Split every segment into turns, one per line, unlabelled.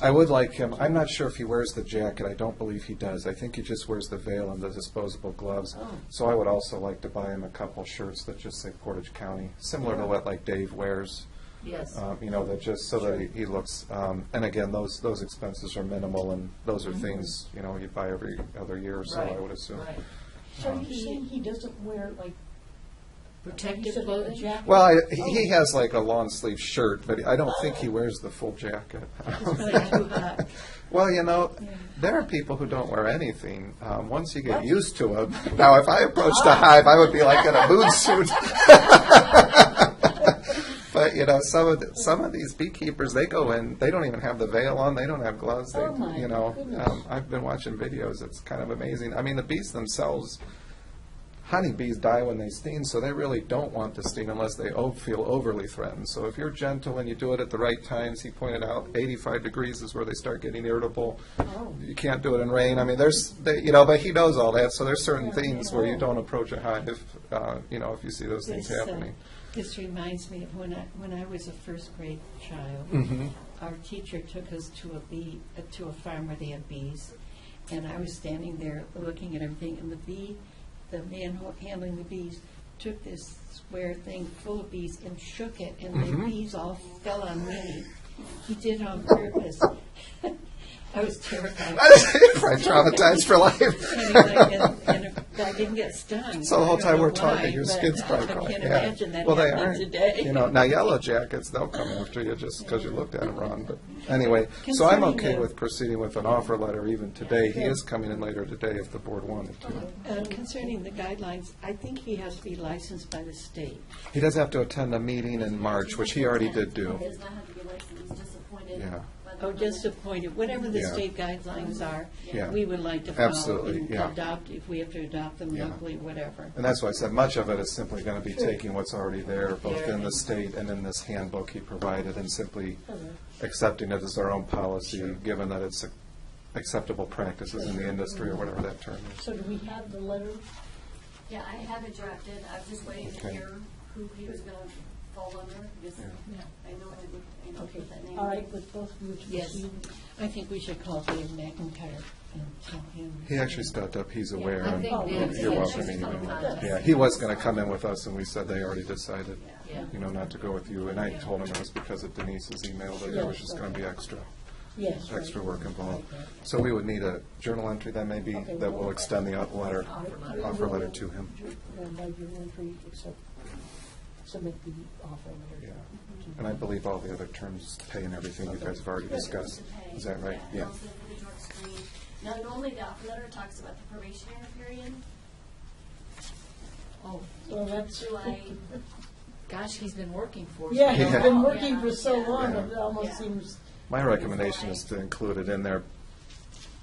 I would like him, I'm not sure if he wears the jacket, I don't believe he does. I think he just wears the veil and the disposable gloves.
Oh.
So I would also like to buy him a couple shirts that just say Portage County, similar to what like Dave wears,
Yes.
um, you know, that just so that he- he looks, um, and again, those, those expenses are minimal and those are
Mhm.
things, you know, you buy every other year, so
Right,
I would assume.
right.
So
Um,
you're saying he doesn't wear like? you
Protective
said a
clothing?
jacket?
Well, I- he he has like a long sleeve shirt, but I don't think he wears the full jacket.
It's too hot.
Well, you know, there are people who don't wear anything. Um, once you get used to them, now if I approached the hive, I would be like in a mood suit. but you know, some of the, some of these beekeepers, they go in, they don't even have the veil on, they don't have gloves. They,
Oh, my
you know,
goodness.
um, I've been watching videos. It's kind of amazing. I mean, the bees themselves. Honeybees die when they sting, so they really don't want to sting unless they o- feel overly threatened. So if you're gentle and you do it at the right times, he pointed out, 85 degrees is where they start getting irritable.
Oh,
You can't do it in rain. I mean, there's, they, you know, but he knows all that. So there's certain things where you don't approach a hive, uh, you know, if you see those things
This, uh,
happening.
This reminds me of when I, when I was a first grade child.
Mm-hmm.
Our teacher took us to a bee, uh, to a farm where they had bees, and I was standing there looking at everything, and the bee, the man ho- handling the bees, took this square thing full of bees and shook it, and the
Mm-hmm.
bees all fell on me. He did it on purpose. I was terrified.
Right, traumatized for life.
Anyway, and, and if I didn't get stung.
So the
I
whole
don't
time
know
we're talking,
why,
your
but
skin's probably
I
crawling.
can't
Yeah.
imagine that
Well, they
happening
aren't.
today.
You know, now yellow jackets, they'll come after you just because you looked at them wrong. But anyway, so I'm
Concerning
okay
the-
with proceeding with an offer letter even today. He
Yeah.
is coming in later today if the board wanted to.
Uh, Concerning the guidelines, I think he has to be licensed by the state.
He does have to attend a meeting in March, which he already did do.
Does not have to be licensed, he's just appointed.
Yeah.
by the
Oh,
governor.
disappointed, whatever the
Yeah.
state guidelines are,
Yeah.
we would like to follow.
Absolutely,
and
yeah.
Adopt, if we have to adopt them
Yeah.
locally, whatever.
And that's why I said much of it is simply going to be taking what's already there, both in
Yeah.
the state and in this handbook he provided, and simply
Uh-huh.
accepting it as our own policy, given that it's acceptable practices in the industry or whatever that term is.
So do we have the letter?
Yeah, I have it drafted, I was just waiting to
Okay.
hear who he was gonna fall under, because I know I would, you know,
Okay,
put that name.
all right, with both of you to
Yes.
proceed.
I think we should call Dave McIntyre and tell him.
He actually stepped up, he's aware,
I
and
think
you're-
Nancy
you're
had
welcome
just
anyway.
come up.
Yeah, he was going to come in with us, and we said they already decided,
Yeah.
you know, not to go with you, and I told him it was because of Denise's email, that there was just going to be extra.
Yes. right.
extra work involved. So we would need a journal entry then maybe that will extend the letter, offer letter to him.
Well, by your entry, except submit the offer
Yeah.
letter.
And I believe all the other terms, pay and everything you guys have already discussed. Is that right? Yeah.
Yeah, and also for the drug screen. Now, normally the letter talks about the probationary period,
Oh,
So that's.
July,
gosh, he's been working for us.
Yeah, he's
Yeah.
been working for so
Yeah.
long, it
Yeah.
Yeah.
almost seems,
My recommendation is to include it in there,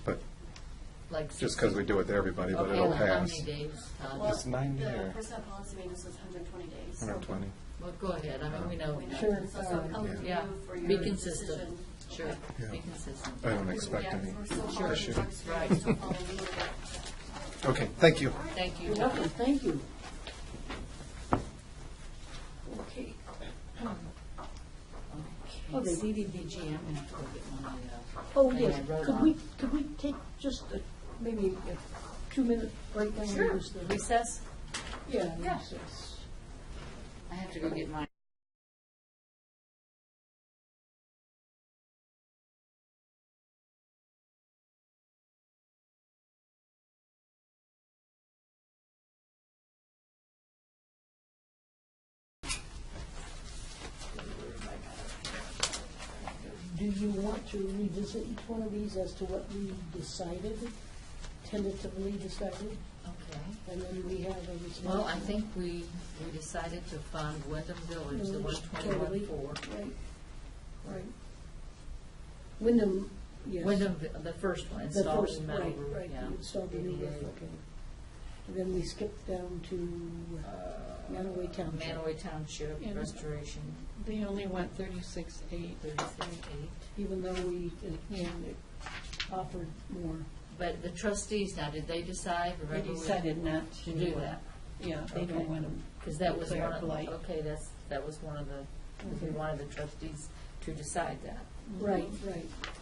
but
Like
just because we do it to everybody, but it'll
Okay, like how
pass.
many days, Todd?
well,
It's nine
the
year.
personnel policy maintenance was hundred and twenty days. so-
Hundred twenty.
Well, go ahead, I mean, we know.
We know.
Sure. Um,
So some color
Yeah.
blue
Yeah,
for your
be consistent,
decision.
sure,
Okay.
be
Yeah.
consistent.
I don't expect
Yeah,
any
we're still following the
issue.
drug screen,
Right.
we're still following the order.
Okay, thank you.
Thank you.
lovely, thank you.
Okay. Oh, Okay, CDBG, I'm gonna have to go get my, uh,
Oh,
thing
yes,
I wrote
could
on.
we, could we take just a- maybe a two-minute break? on this thing?
Recess?
Yeah.
Yeah.
recess.
I have to go get my.
Do you want to revisit each one of these as to what we decided, tentatively decided?
Okay.
And then we have a
Well, I
response.
think we, we decided to fund Wyndham Village, the one twenty-one four.
Right, right. Wyndham, yes.
Wyndham, Vi- the first one,
The
installed
first,
metal
right,
roof,
right,
yeah.
install the new roof,
ADA.
okay. And then we skip down to uh, Manaway Township.
Uh, Manaway Township
Yeah.
Restoration,
They only want thirty-six eight.
thirty-three eight.
even though we uh, can offer more.
But the trustees now, did they decide?
They
Remember we-
decided not to.
To do
uh,
that,
Yeah, they
Okay.
don't want them.
because that was
Declare
one of,
blight.
okay, that's,
Mm-hmm.
that was one of the, we wanted the trustees to decide that.
Right, right.